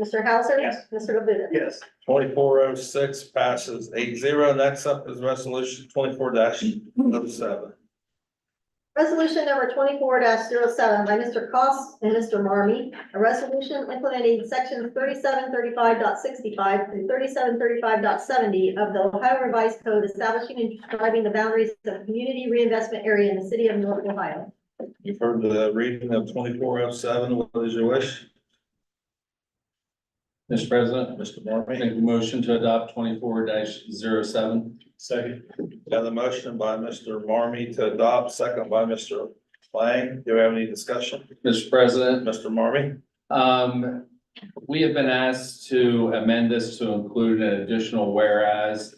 Mr. Hauser? Yes. Mr. Labuda? Yes. Twenty-four oh six passes eight zero. Next up is resolution twenty-four dash oh seven. Resolution number twenty-four 7 by Mr. Cost and Mr. Marmy, a resolution implementing section thirty-seven thirty-five through thirty-seven thirty-five of the Ohio Revised Code establishing and describing the boundaries of community reinvestment area in the city of North Ohio. You've heard the reading of twenty-four oh seven. What is your wish? Mr. President, Mr. Marmy? make a motion to adopt twenty-four 7 Second. Got a motion by Mr. Marmy to adopt, second by Mr. Lang. Do we have any discussion? Mr. President, Mr. Marmy? um, we have been asked to amend this to include an additional whereas.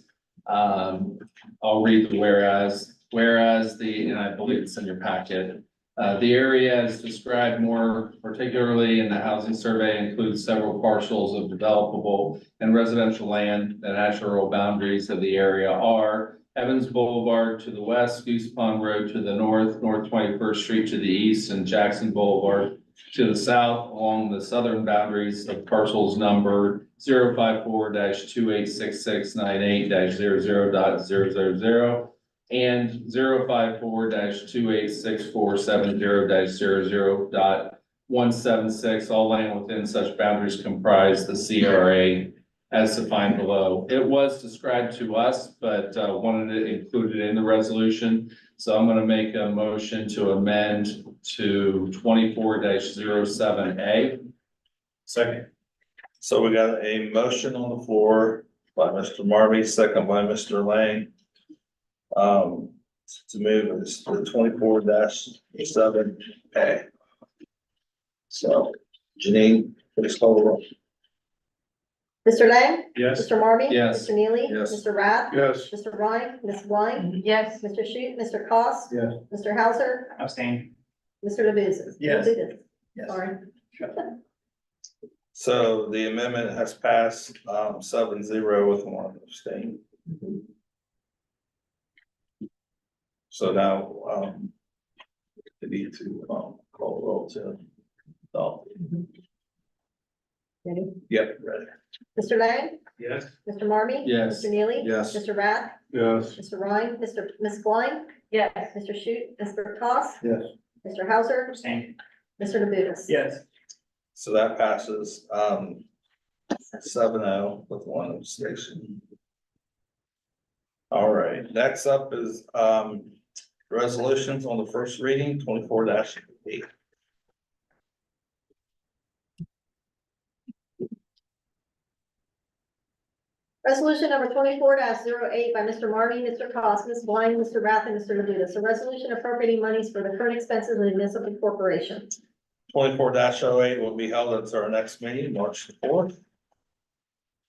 Um, I'll read the whereas, whereas the, and I believe it's in your packet. Uh, the area as described more particularly in the housing survey includes several parcels of developable and residential land. The natural boundaries of the area are Evans Boulevard to the west, Goose Pond Road to the north, North Twenty-first Street to the east, and Jackson Boulevard to the south along the southern boundaries of parcels numbered 54 two eight six six nine eight 0 and 54 two eight six four seven zero 0 one seven six, all land within such boundaries comprise the CRA as defined below. It was described to us, but uh, wanted it included in the resolution. So I'm gonna make a motion to amend to twenty-four 7 A. Second. So we got a motion on the floor by Mr. Marmy, second by Mr. Lang. Um, to move this to twenty-four dash seven A. So Janine, please call the roll. Mr. Lang? Yes. Mr. Marmy? Yes. Mr. Neely? Yes. Mr. Rath? Yes. Mr. Ryan? Ms. Blind? yes, Mr. Shute? Mr. Cost? Yes. Mr. Hauser? Abstain. Mr. Labuda? Yes. Labuda, Yes. Sorry. So the amendment has passed, um, seven zero with one abstain. So now, um, we need to, um, call roll to, oh, Ready? yep, ready. Mr. Lang? Yes. Mr. Marmy? Yes. Mr. Neely? Yes. Mr. Rath? Yes. Mr. Ryan, Mr. Ms. Blind, yes, Mr. Shute, Mr. Cost. Yes. Mr. Hauser, Abstain. Mr. Labutus. Yes. So that passes, um, seven oh with one abstention. All right, next up is, um, resolutions on the first reading, twenty-four eight. Resolution number twenty-four 8 by Mr. Marmy, Mr. Cost, Ms. Blind, Mr. Rath, and Mr. Labutus. A resolution appropriating monies for the current expenses of the municipal corporation. Twenty-four 8 will be held at our next meeting, March fourth.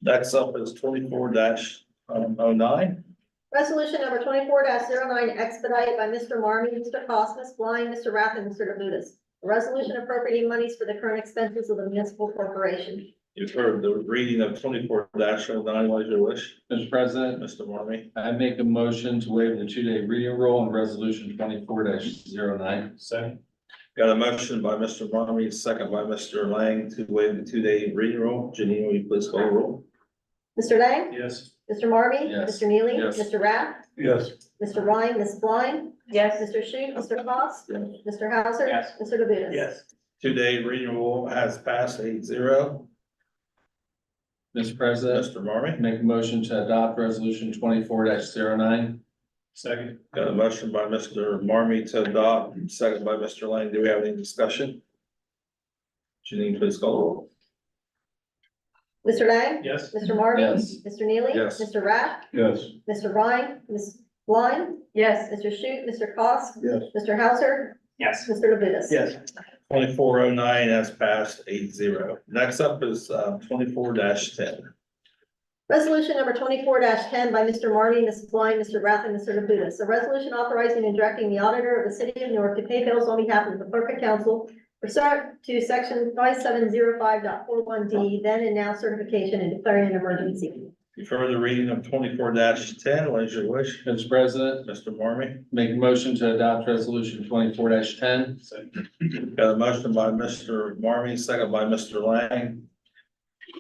Next up is twenty-four um, oh 9 Resolution number twenty-four 9 expedite by Mr. Marmy, Mr. Cost, Ms. Blind, Mr. Rath, and Mr. Labutus. A resolution appropriating monies for the current expenses of the municipal corporation. You've heard the reading of twenty-four 9 what is your wish, Mr. President, Mr. Marmy? I make a motion to waive the two-day reading rule on resolution twenty-four 9 Second. Got a motion by Mr. Marmy, second by Mr. Lang to waive the two-day reading rule. Janine, will you please call the roll? Mr. Lang? Yes. Mr. Marmy? Yes. Mr. Neely? Yes. Mr. Rath? Yes. Mr. Ryan, Ms. Blind, yes, Mr. Shute, Mr. Cost, Yes. Mr. Hauser. Yes. Mr. Labuda. Yes. Two-day reading rule has passed eight zero. Mr. President, Mr. Marmy? make a motion to adopt resolution twenty-four 9 Second. Got a motion by Mr. Marmy to adopt, second by Mr. Lang. Do we have any discussion? Janine, please call the roll. Mr. Lang. Yes. Mr. Marmy. Yes. Mr. Neely. Yes. Mr. Rath. Yes. Mr. Ryan, Ms. Blind, yes, Mr. Shute, Mr. Cost. Yes. Mr. Hauser. Yes. Mr. Labuda. Yes. Twenty-four oh nine has passed eight zero. Next up is uh twenty-four ten. Resolution number twenty-four ten by Mr. Marmy, Ms. Blind, Mr. Rath, and Mr. Labuda. A resolution authorizing and directing the auditor of the city of Newark to pay bills on behalf of the clerk of council pursuant to section five seven zero five dot four one D, then and now certification and declaring an emergency. You've heard the reading of twenty-four ten. What is your wish, Mr. President, Mr. Marmy? make a motion to adopt resolution twenty-four ten. Second. Got a motion by Mr. Marmy, second by Mr. Lang